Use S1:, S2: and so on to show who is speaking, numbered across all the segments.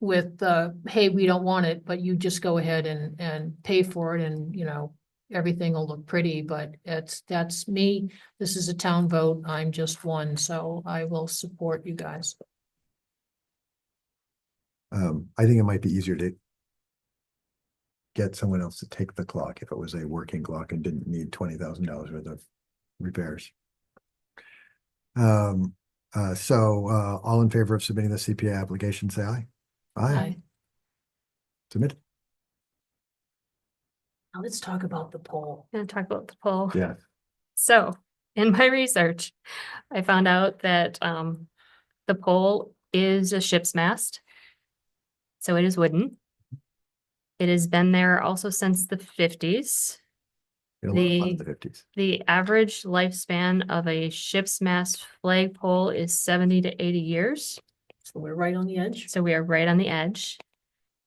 S1: with, uh, hey, we don't want it, but you just go ahead and, and pay for it and, you know, everything will look pretty, but it's, that's me. This is a town vote. I'm just one, so I will support you guys.
S2: Um, I think it might be easier to get someone else to take the clock if it was a working clock and didn't need twenty thousand dollars worth of repairs. Um, uh, so, uh, all in favor of submitting the CPA application, say aye. Aye,
S1: Aye.
S2: submit.
S1: Now let's talk about the poll.
S3: Gonna talk about the poll.
S2: Yeah.
S3: So in my research, I found out that um the pole is a ship's mast. So it is wooden. It has been there also since the fifties.
S2: It'll last
S3: The-
S2: the fifties.
S3: The average lifespan of a ship's mast flag pole is seventy to eighty years.
S1: So we're right on the edge.
S3: So we are right on the edge.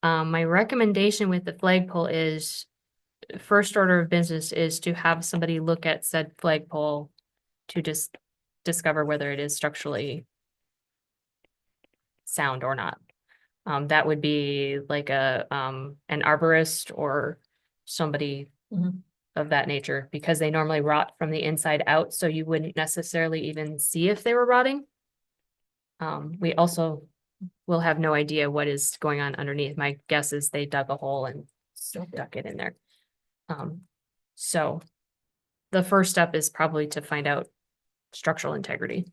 S3: Um, my recommendation with the flagpole is first order of business is to have somebody look at said flagpole to just discover whether it is structurally sound or not. Um, that would be like a, um, an arborist or somebody
S1: Mhm.
S3: of that nature, because they normally rot from the inside out, so you wouldn't necessarily even see if they were rotting. Um, we also will have no idea what is going on underneath. My guess is they dug a hole and stuck it in there. Um, so the first step is probably to find out structural integrity.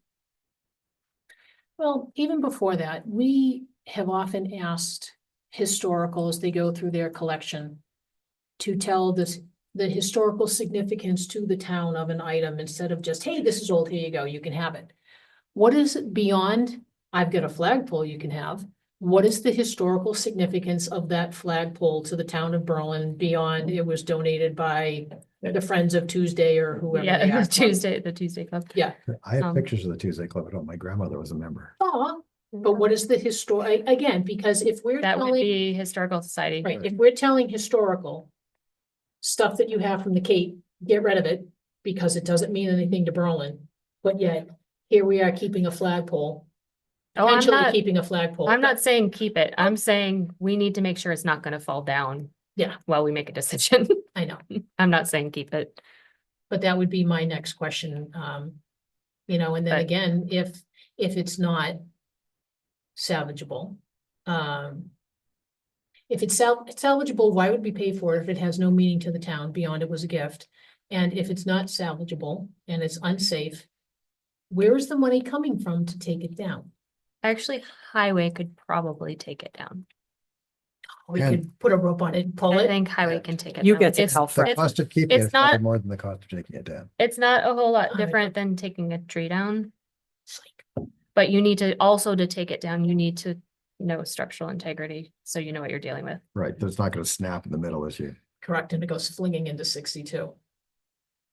S1: Well, even before that, we have often asked historical as they go through their collection to tell this, the historical significance to the town of an item instead of just, hey, this is old, here you go, you can have it. What is it beyond, I've got a flagpole you can have, what is the historical significance of that flagpole to the town of Berlin beyond it was donated by the Friends of Tuesday or whoever they
S3: Yeah,
S1: are?
S3: Tuesday, the Tuesday club.
S2: I have
S3: Um,
S2: pictures of the Tuesday Club at home. My grandmother was a member.
S1: Aw, but what is the histor, again, because if we're
S3: That would
S1: telling.
S3: be historical society.
S1: Right, if we're telling historical. Stuff that you have from the Cape, get rid of it, because it doesn't mean anything to Berlin, but yet, here we are keeping a flagpole.
S3: Oh, I'm
S1: potentially
S3: not,
S1: Keeping a flagpole.
S3: I'm not saying keep it. I'm saying we need to make sure it's not gonna fall down.
S1: Yeah.
S3: While we make a decision.
S1: I know,
S3: I'm not saying keep it.
S1: but that would be my next question, um, you know, and then
S3: But-
S1: again, if, if it's not. Salvageable, um. If it's sal- salvageable, why would we pay for it if it has no meaning to the town beyond it was a gift? And if it's not salvageable and it's unsafe, where is the money coming from to take it down?
S3: Actually, highway could probably take it down.
S1: We
S2: Yeah.
S1: could put a rope on it, pull
S3: I
S1: it.
S3: think highway can take it.
S4: You
S3: down.
S4: get to
S3: It's-
S4: call
S2: The
S3: it's-
S2: cost of keeping it
S3: it's
S2: is probably
S3: not-
S2: more than the cost of taking it down.
S3: It's not a whole lot
S1: Alright.
S3: different than taking a tree down,
S1: It's like,
S3: but you need to also to take it down, you need to know structural integrity, so you know what you're dealing with.
S2: Right, that's not gonna snap in the middle as you.
S1: Correct, and it goes flinging into sixty-two.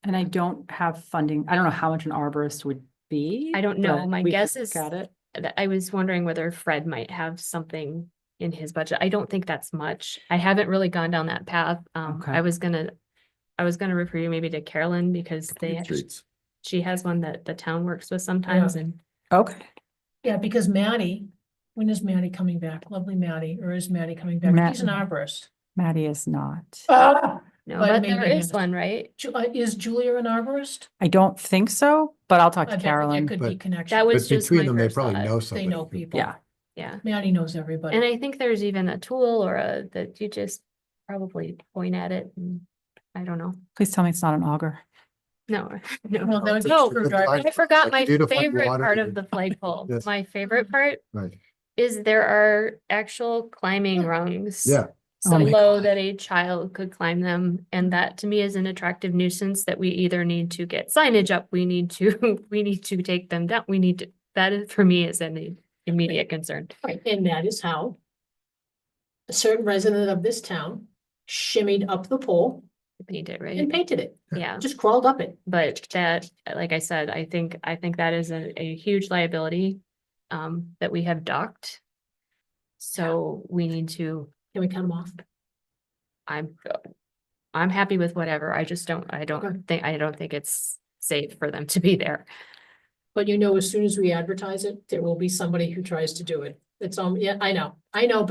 S4: And I don't have funding. I don't know how much an arborist would be.
S3: I don't know.
S4: but
S3: My
S4: we could
S3: guess
S4: look
S3: is-
S4: at it.
S3: Th- I was wondering whether Fred might have something in his budget. I don't think that's much. I haven't really gone down that path. Um,
S4: Okay.
S3: I was gonna, I was gonna refer you maybe to Carolyn because they, act-
S2: Streets.
S3: she has one that the town works with sometimes and
S4: Okay.
S1: Yeah, because Maddie, when is Maddie coming back? Lovely Maddie, or is Maddie coming back?
S4: Matt-
S1: She's an arborist.
S4: Maddie is not.
S1: Ah,
S3: no,
S1: But
S3: but
S1: maybe
S3: there
S1: he
S3: is
S1: has-
S3: one, right?
S1: Ju- uh, is Julia an arborist?
S4: I don't think so, but I'll talk
S1: I
S4: to
S1: bet There
S4: Carolyn.
S1: could be
S2: But-
S1: connection.
S3: That was
S2: But
S3: just
S2: between
S3: my
S2: them, they
S3: first
S2: probably
S3: thought.
S2: know
S1: They
S2: somebody.
S1: know
S2: who-
S1: people.
S4: Yeah.
S3: Yeah.
S1: Maddie knows everybody.
S3: And I think there's even a tool or a, that you just probably point at it and, I don't know,
S4: Please tell me it's not an auger.
S3: no,
S1: Well, that
S3: no.
S1: would be
S3: No,
S1: true. screwdriver.
S2: Like-
S3: I forgot
S2: like
S3: my
S2: you do to find
S3: favorite
S2: water
S3: part
S2: to-
S3: of the flagpole.
S2: Yes.
S3: My favorite part
S2: Right,
S3: is there are actual climbing rungs.
S2: yeah.
S3: So
S4: Oh my
S3: low
S4: God.
S3: that a child could climb them, and that to me is an attractive nuisance that we either need to get signage up, we need to, we need to take them down, we need to, that is, for me is an immediate concern.
S1: Right, And that is how a certain resident of this town shimmied up the pole
S3: Need
S1: and
S3: it, right?
S1: painted it,
S3: Yeah.
S1: just crawled up it.
S3: But that, like I said, I think, I think that is a, a huge liability um, that we have docked. So we need to,
S1: Can we cut them off?
S3: I'm, I'm happy with whatever. I just don't, I don't think, I don't think it's safe for them to be there.
S1: But you know, as soon as we advertise it, there will be somebody who tries to do it. It's, um, yeah, I know, I know, but